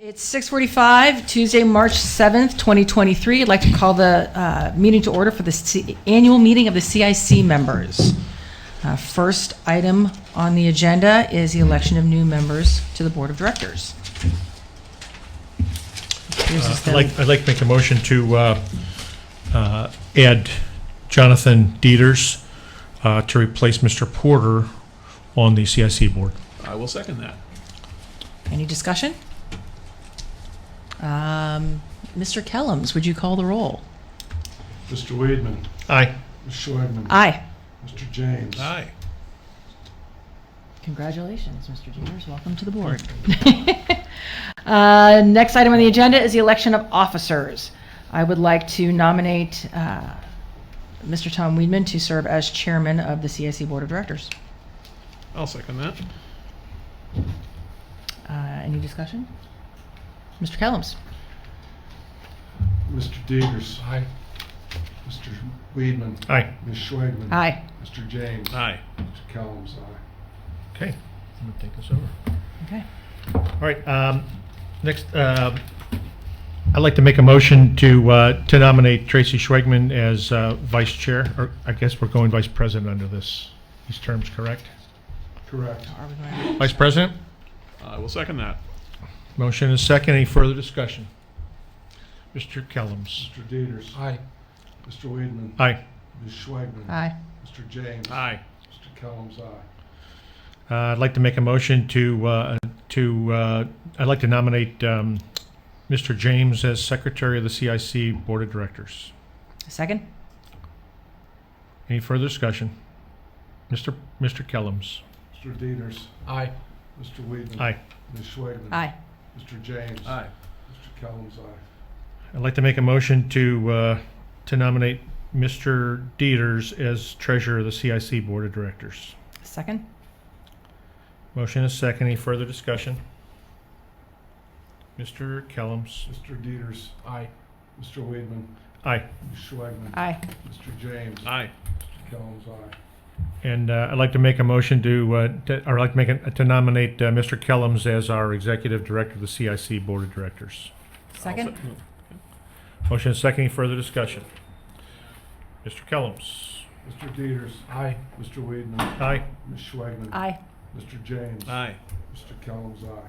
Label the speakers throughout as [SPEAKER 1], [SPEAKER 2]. [SPEAKER 1] It's 6:45, Tuesday, March 7th, 2023. I'd like to call the uh, meeting to order for the C- annual meeting of the CIC members. Uh, First item on the agenda is the election of new members to the Board of Directors. This
[SPEAKER 2] Uh,
[SPEAKER 1] is
[SPEAKER 2] I'd
[SPEAKER 1] the-
[SPEAKER 2] like, I'd like to make a motion to uh, uh, add Jonathan Dieters uh, to replace Mr. Porter on the CIC board.
[SPEAKER 3] I will second that.
[SPEAKER 1] Any discussion? Um, Mr. Kellums, would you call the roll?
[SPEAKER 4] Mr. Weedman,
[SPEAKER 2] Aye.
[SPEAKER 4] Ms. Schwagman,
[SPEAKER 1] Aye.
[SPEAKER 4] Mr. James.
[SPEAKER 3] Aye.
[SPEAKER 1] Congratulations, Mr. Jeters. Welcome to the board. Uh, Next item on the agenda is the election of officers. I would like to nominate uh, Mr. Tom Weedman to serve as chairman of the CIC Board of Directors.
[SPEAKER 3] I'll second that.
[SPEAKER 1] Uh, Any discussion? Mr. Kellums?
[SPEAKER 4] Mr. Degres,
[SPEAKER 3] Aye.
[SPEAKER 4] Mr. Weedman,
[SPEAKER 2] Aye.
[SPEAKER 4] Ms. Schwagman.
[SPEAKER 1] Aye.
[SPEAKER 4] Mr. James.
[SPEAKER 3] Aye.
[SPEAKER 4] Mr. Kellums, aye.
[SPEAKER 2] Okay. I'm gonna take this over.
[SPEAKER 1] Okay.
[SPEAKER 2] All right, um, next, um, I'd like to make a motion to, uh, to nominate Tracy Schwegman as uh, vice chair, or I guess we're going vice president under this, these terms, correct?
[SPEAKER 4] Correct.
[SPEAKER 1] Are we going
[SPEAKER 2] Vice president?
[SPEAKER 3] I will second that.
[SPEAKER 2] Motion is second. Any further discussion? Mr. Kellums?
[SPEAKER 4] Mr. Degres.
[SPEAKER 2] Aye.
[SPEAKER 4] Mr. Weedman,
[SPEAKER 2] Aye.
[SPEAKER 4] Ms. Schwagman.
[SPEAKER 1] to- Aye.
[SPEAKER 4] Mr. James.
[SPEAKER 3] Aye.
[SPEAKER 4] Mr. Kellums, aye.
[SPEAKER 2] Uh, I'd like to make a motion to, uh, to, uh, I'd like to nominate um, Mr. James as Secretary of the CIC Board of Directors.
[SPEAKER 1] Second?
[SPEAKER 2] Any further discussion? Mr. Mr. Kellums?
[SPEAKER 4] Mr. Degres.
[SPEAKER 3] Aye.
[SPEAKER 4] Mr. Weedman.
[SPEAKER 2] Aye.
[SPEAKER 4] Ms. Schwagman.
[SPEAKER 1] Aye.
[SPEAKER 4] Mr. James.
[SPEAKER 3] Aye.
[SPEAKER 4] Mr. Kellums, aye.
[SPEAKER 2] I'd like to make a motion to, uh, to nominate Mr. Dieters as Treasurer of the CIC Board of Directors.
[SPEAKER 1] Second?
[SPEAKER 2] Motion is second. Any further discussion? Mr. Kellums?
[SPEAKER 4] Mr. Degres.
[SPEAKER 3] Aye.
[SPEAKER 4] Mr. Weedman,
[SPEAKER 2] Aye.
[SPEAKER 4] Ms. Schwagman.
[SPEAKER 1] Aye.
[SPEAKER 4] Mr. James.
[SPEAKER 3] Aye.
[SPEAKER 4] Mr. Kellums, aye.
[SPEAKER 2] And uh, I'd like to make a motion to, uh, to- or I'd like to make, a- to nominate uh, Mr. Kellums as our Executive Director of the CIC Board of Directors.
[SPEAKER 1] Second?
[SPEAKER 2] Motion is second. Any further discussion? Mr. Kellums?
[SPEAKER 4] Mr. Degres.
[SPEAKER 3] Aye.
[SPEAKER 4] Mr. Weedman,
[SPEAKER 2] Aye.
[SPEAKER 4] Ms. Schwagman.
[SPEAKER 1] Aye.
[SPEAKER 4] Mr. James.
[SPEAKER 3] Aye.
[SPEAKER 4] Mr. Kellums, aye.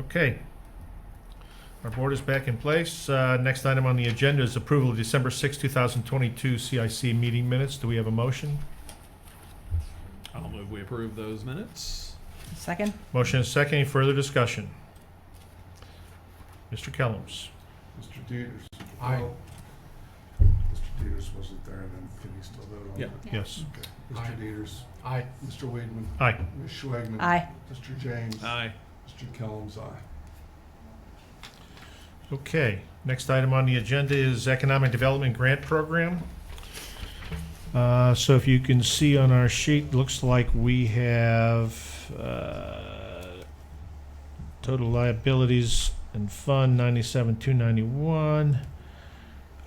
[SPEAKER 2] Okay. Our board is back in place. Uh, Next item on the agenda is approval of December 6, 2022 CIC meeting minutes. Do we have a motion?
[SPEAKER 3] I'll move we approve those minutes.
[SPEAKER 1] Second?
[SPEAKER 2] Motion is second. Any further discussion? Mr. Kellums?
[SPEAKER 4] Mr. Dieters.
[SPEAKER 3] Aye.
[SPEAKER 4] Well, Mr. Dieters wasn't there, then can he still vote on
[SPEAKER 3] Yeah.
[SPEAKER 4] it?
[SPEAKER 2] Yes.
[SPEAKER 4] Okay.
[SPEAKER 3] Aye.
[SPEAKER 4] Mr. Dieters.
[SPEAKER 3] Aye.
[SPEAKER 4] Mr. Weidman.
[SPEAKER 2] Aye.
[SPEAKER 4] Ms. Schwagman.
[SPEAKER 1] Aye.
[SPEAKER 4] Mr. James.
[SPEAKER 3] Aye.
[SPEAKER 4] Mr. Kellums, aye.
[SPEAKER 2] Okay, next item on the agenda is Economic Development Grant Program. Uh, So if you can see on our sheet, looks like we have uh, total liabilities and fund 97,291.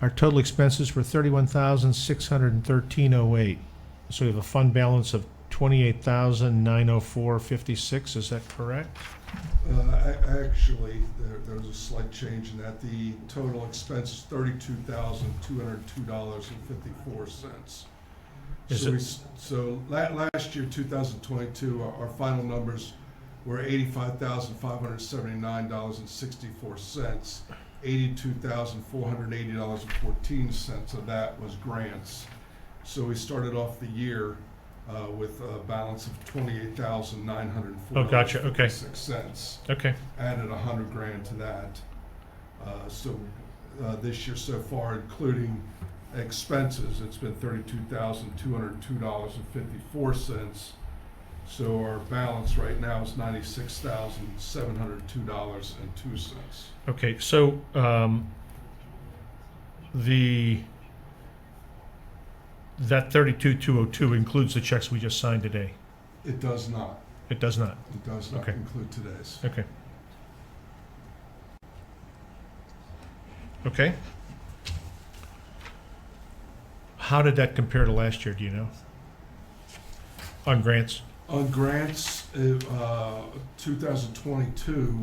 [SPEAKER 2] Our total expenses were 31,613.08. So we have a fund balance of 28,904.56, is that correct?
[SPEAKER 4] Uh, a- Actually, there, there was a slight change in that. The total expense is thirty-two thousand, two hundred and two dollars and fifty-four cents.
[SPEAKER 2] Is
[SPEAKER 4] So
[SPEAKER 2] it-
[SPEAKER 4] we, s- so la- last year, two thousand twenty-two, our, our final numbers were eighty-five thousand, five hundred and seventy-nine dollars and sixty-four cents. Eighty-two thousand, four hundred and eighty dollars and fourteen cents of that was grants. So we started off the year, uh, with a balance of twenty-eight thousand, nine hundred and four
[SPEAKER 2] Oh, gotcha, okay.
[SPEAKER 4] Six cents
[SPEAKER 2] Okay.
[SPEAKER 4] added a hundred grand to that. Uh, So uh, this year so far, including expenses, it's been thirty-two thousand, two hundred and two dollars and fifty-four cents. So our balance right now is ninety-six thousand, seven hundred and two dollars and two cents.
[SPEAKER 2] Okay, so, um, the, that thirty-two, two oh two includes the checks we just signed today?
[SPEAKER 4] It does not,
[SPEAKER 2] It does not,
[SPEAKER 4] it does not
[SPEAKER 2] Okay.
[SPEAKER 4] include today's.
[SPEAKER 2] okay. Okay. How did that compare to last year, do you know? On grants?
[SPEAKER 4] On grants, uh, 2022,